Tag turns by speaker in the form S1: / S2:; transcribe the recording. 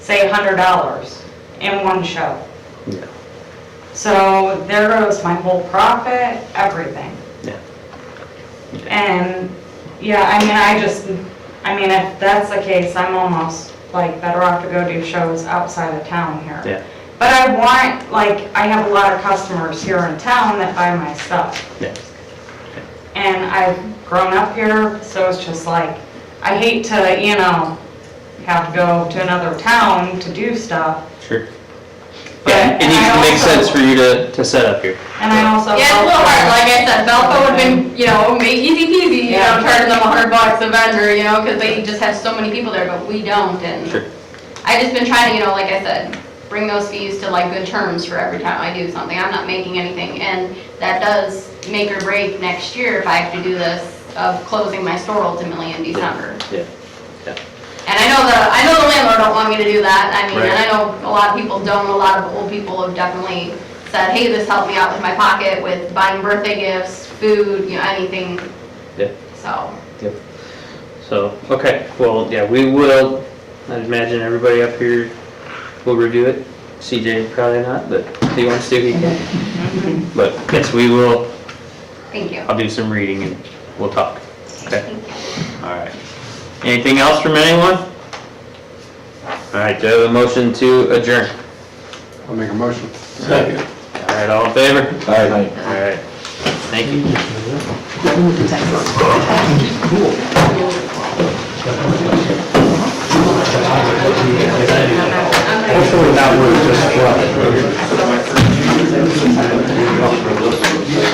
S1: say $100 in one show.
S2: Yeah,
S1: So there goes my whole profit, everything.
S2: yeah.
S1: And, yeah, I mean, I just, I mean, if that's the case, I'm almost like better off to go do shows outside of town here.
S2: Yeah.
S1: But I want, like, I have a lot of customers here in town that buy my stuff.
S2: Yeah.
S1: And I've grown up here, so it's just like, I hate to, you know, have to go to another town to do stuff.
S2: Sure.
S1: But-
S2: It needs to
S1: and I
S2: make
S1: also-
S2: sense for you to, to set up here.
S1: And I also.
S3: Yeah, it's a little hard, like I said, Belco would've been, you know, make easy peasy, you know,
S1: Yeah.
S3: charging them a hundred bucks a vendor, you know, cause they just have so many people there, but we don't, and
S2: Sure.
S3: I just been trying to, you know, like I said, bring those fees to like good terms for every time I do something, I'm not making anything, and that does make or break next year if I have to do this, of closing my store ultimately in December.
S2: Yeah.
S3: And I know the, I know the landlord don't want me to do that, I mean, and I
S2: Right.
S3: know a lot of people don't, a lot of old people have definitely said, hey, this helped me out with my pocket, with buying birthday gifts, food, you know, anything,
S2: Yeah.
S3: so.
S2: Yep. So, okay, well, yeah, we will, I'd imagine everybody up here will review it. CJ probably not, but if he wants to, he can. But yes, we will,
S3: Thank you.
S2: I'll do some reading and we'll talk. Okay,
S3: Thank you.
S2: all right. Anything else from anyone? All right, do I have a motion to adjourn?
S4: I'll make a motion.
S2: All right, all in favor?
S4: Aye.
S2: All right, thank you.
S4: Hopefully that would just,